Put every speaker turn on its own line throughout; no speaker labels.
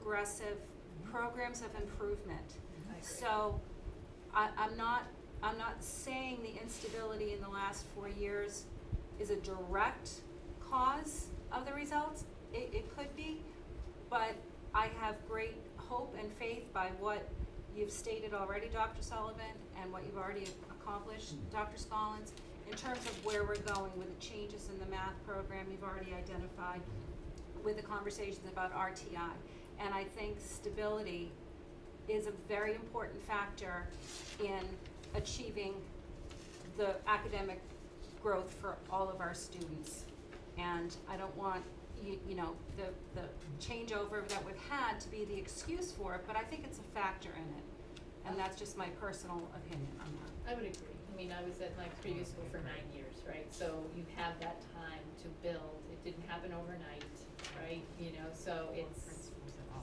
progressive programs of improvement.
I agree.
So I, I'm not, I'm not saying the instability in the last four years is a direct cause of the results. It, it could be, but I have great hope and faith by what you've stated already, Dr. Sullivan, and what you've already accomplished, Dr. Scollins, in terms of where we're going with the changes in the math program you've already identified, with the conversations about RTI. And I think stability is a very important factor in achieving the academic growth for all of our students. And I don't want, you, you know, the, the changeover that we've had to be the excuse for it, but I think it's a factor in it. And that's just my personal opinion on that.
I would agree. I mean, I was at my previous school for nine years, right? So you have that time to build. It didn't happen overnight, right? You know, so it's,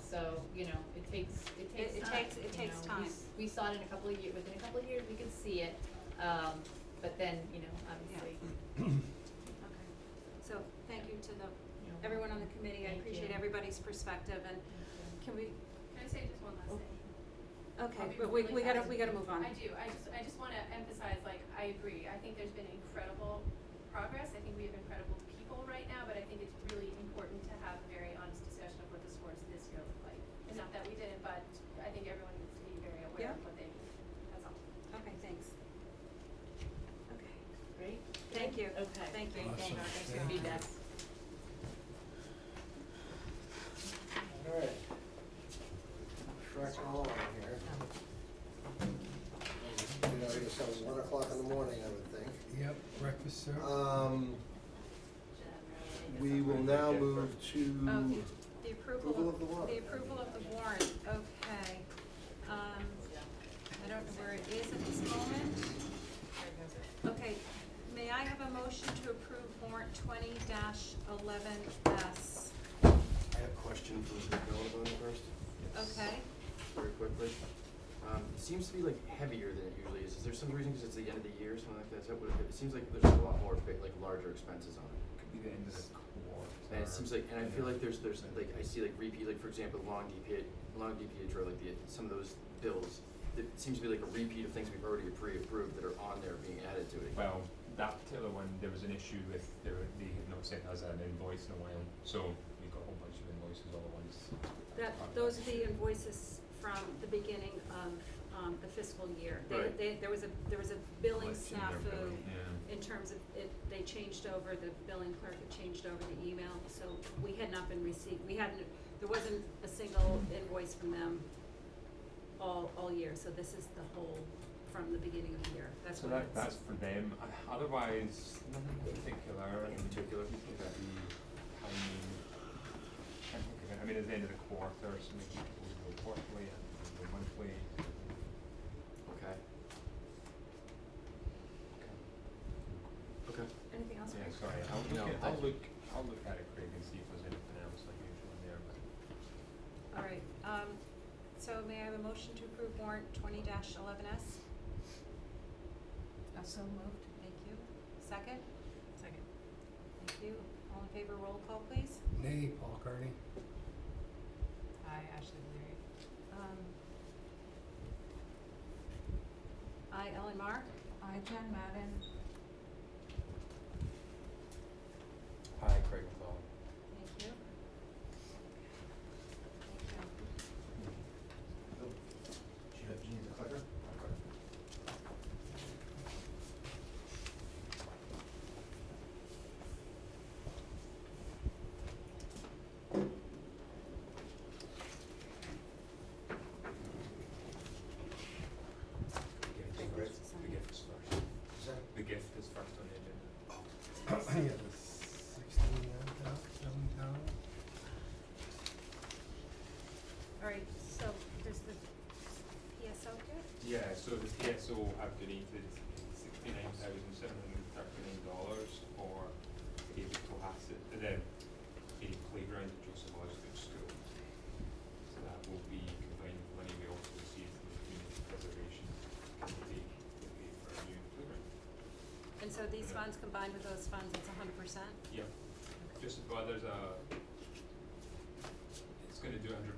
so, you know, it takes, it
It- it
takes time,
takes- it
you
takes
know. We
time.
s- We saw it in a couple of years, within a couple of years, we could see it. Um, but then, you know, obviously,
Okay. So, thank you to the,
you know.
everyone on the committee, I
Thank you.
appreciate everybody's perspective and can we,
Can I say just one last
Oh.
thing? I'll
okay,
be
but we,
really
we gotta,
fast.
we gotta move on.
I do, I just, I just wanna emphasize, like, I agree, I think there's been incredible progress, I think we have incredible people right now, but I think it's really important to have a very honest discussion of what the scores this year look like. And not that we didn't, but I think everyone needs to be very aware
Yeah.
of what they need, that's all.
Okay, thanks. Okay.
Great?
Thank you.
Okay.
Thank you.
Thanks,
Awesome.
thanks for
Thank you.
feedback.
Alright. Track along here. You know, it's at one o'clock in the morning, I would think.
Yep, breakfast served.
Um, we will now move to,
Okay, the
Approval
approval
of the
of,
warrant.
the approval of the warrant, okay. Um, I don't know where it is at this moment. Okay, may I have a motion to approve warrant twenty dash eleven S?
I have a question for the building first,
Okay,
very quickly. Um, it seems to be like heavier than it usually is. Is there some reason, because it's the end of the year, or something like that? Is that what it, it seems like there's a lot more, big, like larger expenses on it.
could be the end of the quarter.
And it seems like, and I feel like there's, there's, like, I see like repeat, like, for example, long DPH, long DPH or like the, some of those bills. It seems to be like a repeat of things we've already pre-approved that are on there being added to it.
Well, that particular one, there was an issue with, they were- they had not sent us an invoice in a while, so we got a whole bunch of invoices all at once.
that, those are the invoices from the beginning of, um, the fiscal year. They-
Right.
They, there was a, there was a billing
Like, in their
snafu
billing, yeah.
in terms of, it, they changed over, the billing clerk had changed over the email, so we had not been received, we hadn't, there wasn't a single invoice from them all, all year, so this is the whole, from the beginning of the year, that's
So
what
that,
it's.
that's for them, Uh, otherwise, nothing particular, in particular, it's gonna be, I mean, I think of it, I mean, at the end of the quarter, so maybe people go quarterly, and people go monthly.
Okay. Okay. Okay.
Anything else?
Yeah,
Rick?
sorry, I'll
No,
look at,
I-
I'll look, I'll look at it, Craig, and see if there's anything else like usual in there, but.
All right, um, so may I have a motion to approve warrant twenty eleven S?
Also moved.
Thank you. Second?
Second.
Thank you. All in favor, roll call, please.
Nay, Paul Kearney.
Aye, Ashley Leary.
Um, I, Ellen Mark.
Aye, Jen Madden.
Hi, Craig McClellan.
Thank you. Thank you.
The gift is first, the gift is first.
is that
The gift is first on the
Yeah,
agenda.
the sixteen down, seven down.
All right, so there's the PSO gift.
Yeah, so the TSO have donated sixty-nine thousand seven hundred and thirty-nine dollars for David Cohasset, uh, the, the playground at Joseph Osgood School. So that will be combined with money we also received from the Community Preservation Committee to pay for a new playground.
And so these funds combined with those funds, it's hundred percent?
Yep, just, well, there's a, it's gonna do a hundred